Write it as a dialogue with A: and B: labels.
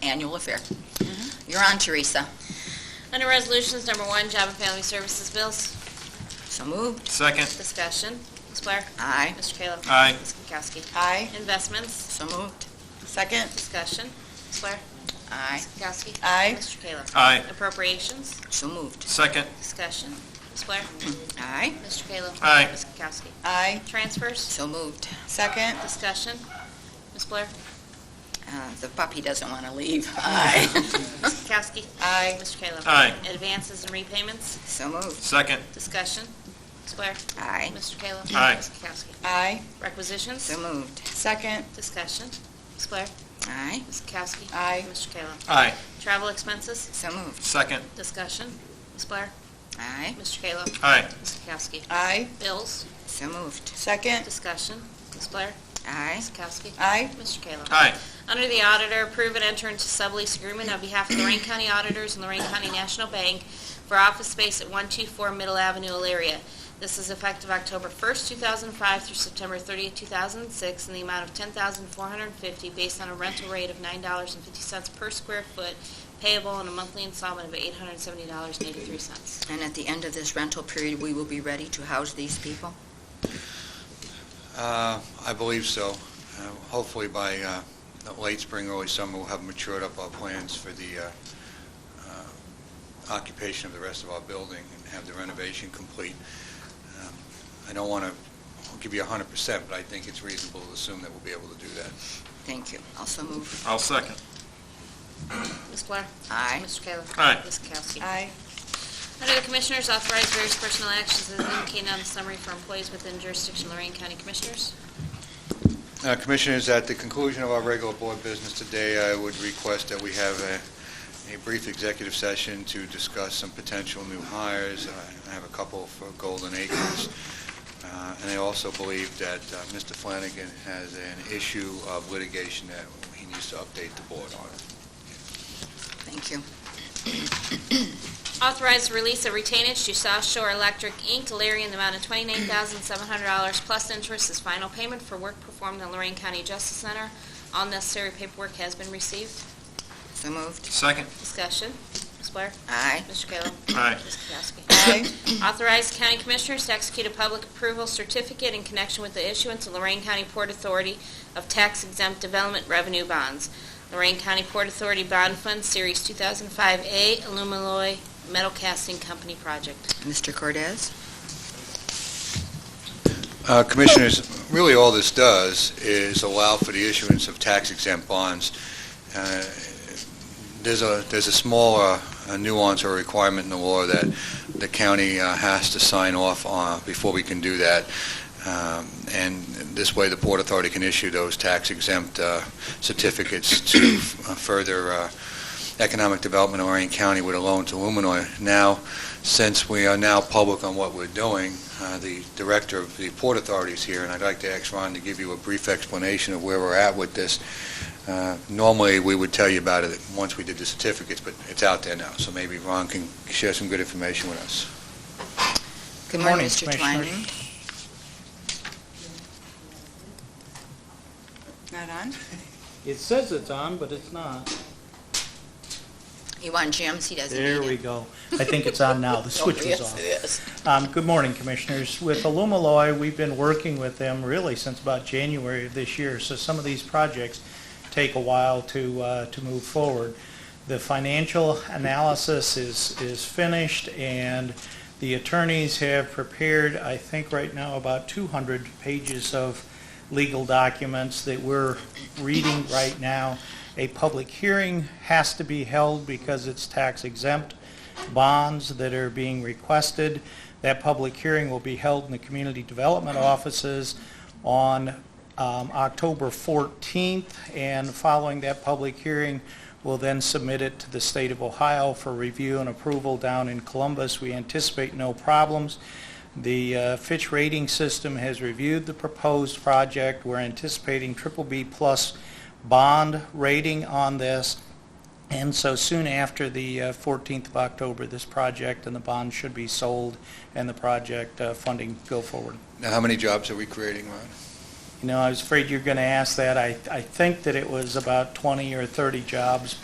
A: annual affair. You're on, Teresa.
B: Under Resolutions Number One, Job and Family Services Bills,
A: So moved.
C: Second.
B: discussion. Ms. Blair?
A: Aye.
B: Mr. Kayla?
C: Aye.
B: Ms. Kukowski?
D: Aye.
B: Investments,
A: So moved. Second.
B: discussion. Ms. Blair?
A: Aye.
B: Ms. Kukowski?
D: Aye.
B: Mr. Kayla?
C: Aye.
B: Appropriations,
A: So moved.
C: Second.
B: discussion. Ms. Blair?
A: Aye.
B: Mr. Kayla?
C: Aye.
B: Ms. Kukowski?
D: Aye.
B: Transfers,
A: So moved.
D: Second.
B: discussion. Ms. Blair?
A: Uh, The puppy doesn't want to leave. Aye.
B: Ms. Kukowski?
D: Aye.
B: Mr. Kayla?
C: Aye.
B: Advances and repayments,
A: So moved.
C: Second.
B: discussion. Ms. Blair?
A: Aye.
B: Mr. Kayla?
C: Aye.
B: Ms. Kukowski?
D: Aye.
B: Requisitions,
A: So moved.
D: Second.
B: discussion. Ms. Blair?
A: Aye.
B: Ms. Kukowski?
D: Aye.
B: Mr. Kayla?
C: Aye.
B: Travel expenses,
A: So moved.
C: Second.
B: Discussion. Ms. Blair?
A: Aye.
B: Mr. Kayla?
C: Aye.
B: Ms. Kowski?
D: Aye.
B: Bills?
A: So moved.
D: Second.
B: Discussion. Ms. Blair?
A: Aye.
B: Ms. Kowski?
D: Aye.
B: Mr. Kayla?
C: Aye.
B: Under the auditor, approve and enter into sublease agreement on behalf of Lorraine County Auditors and Lorraine County National Bank for office space at 124 Middle Avenue, Elyria. This is effective October 1st, 2005 through September 30th, 2006, in the amount of $10,450 based on a rental rate of $9.50 per square foot payable in a monthly installment of $870.83.
A: And at the end of this rental period, we will be ready to house these people?
E: Uh, I believe so. Uh, Hopefully by uh, the late spring, early summer, we'll have matured up our plans for the uh, uh, occupation of the rest of our building and have the renovation complete. Um, I don't want to give you 100%, but I think it's reasonable to assume that we'll be able to do that.
A: Thank you. Also move.
C: I'll second.
B: Ms. Blair?
A: Aye.
B: Mr. Kayla?
C: Aye.
B: Ms. Kowski?
D: Aye.
B: Under the Commissioners, authorize various personnel actions as indicated on the summary for employees within jurisdiction of Lorraine County Commissioners.
E: Uh, Commissioners, at the conclusion of our regular board business today, I would request that we have a, a brief executive session to discuss some potential new hires. I- I have a couple for Golden Acres. Uh, And I also believe that uh, Mr. Flanagan has an issue of litigation that he needs to update the board on.
A: Thank you.
B: Authorize the release of retainage to South Shore Electric, Inc., Alariah, in the amount of $29,700 plus interest as final payment for work performed in Lorraine County Justice Center. All necessary paperwork has been received.
A: So moved.
C: Second.
B: Discussion. Ms. Blair?
A: Aye.
B: Mr. Kayla?
C: Aye.
B: Ms. Kowski?
D: Aye.
B: Authorize county commissioners to execute a public approval certificate in connection with the issuance of Lorraine County Port Authority of tax exempt development revenue bonds. Lorraine County Port Authority Bond Fund Series 2005A Alumiloy Metal Casting Company Project.
A: Mr. Cordez?
E: Uh, Commissioners, really all this does is allow for the issuance of tax-exempt bonds. Uh, There's a, there's a small uh, nuance or requirement in the law that the county uh, has to sign off on before we can do that. Um, And this way, the Port Authority can issue those tax-exempt uh, certificates to uh, further uh, economic development of Lorraine County with a loan to Luminoy. Now, since we are now public on what we're doing, uh, the director of the Port Authority is here, and I'd like to ask Ron to give you a brief explanation of where we're at with this. Uh, Normally, we would tell you about it once we did the certificates, but it's out there now, so maybe Ron can share some good information with us.
A: Good
F: Good
A: morning,
F: morning,
A: Mr.
F: Commissioners.
A: Twining.
D: Not on?
F: It says it's on, but it's not.
A: You want jams? He doesn't need it.
F: There we go. I think it's on now. The switch was
A: Yes,
F: off.
A: it is.
F: Um, Good morning, Commissioners. With Alumaloy, we've been working with them really since about January of this year, so some of these projects take a while to, uh, to move forward. The financial analysis is, is finished, and the attorneys have prepared, I think right now, about 200 pages of legal documents that we're reading right now. A public hearing has to be held because it's tax exempt bonds that are being requested. That public hearing will be held in the community development offices on um, October 14th, and following that public hearing, we'll then submit it to the state of Ohio for review and approval down in Columbus. We anticipate no problems. The uh, Fitch Rating System has reviewed the proposed project. We're anticipating triple B-plus bond rating on this, and so soon after the uh, 14th of October, this project and the bond should be sold and the project uh, funding go forward.
E: Now, how many jobs are we creating, Ron?
F: You know, I was afraid you were going to ask that. I, I think that it was about 20 or 30 jobs,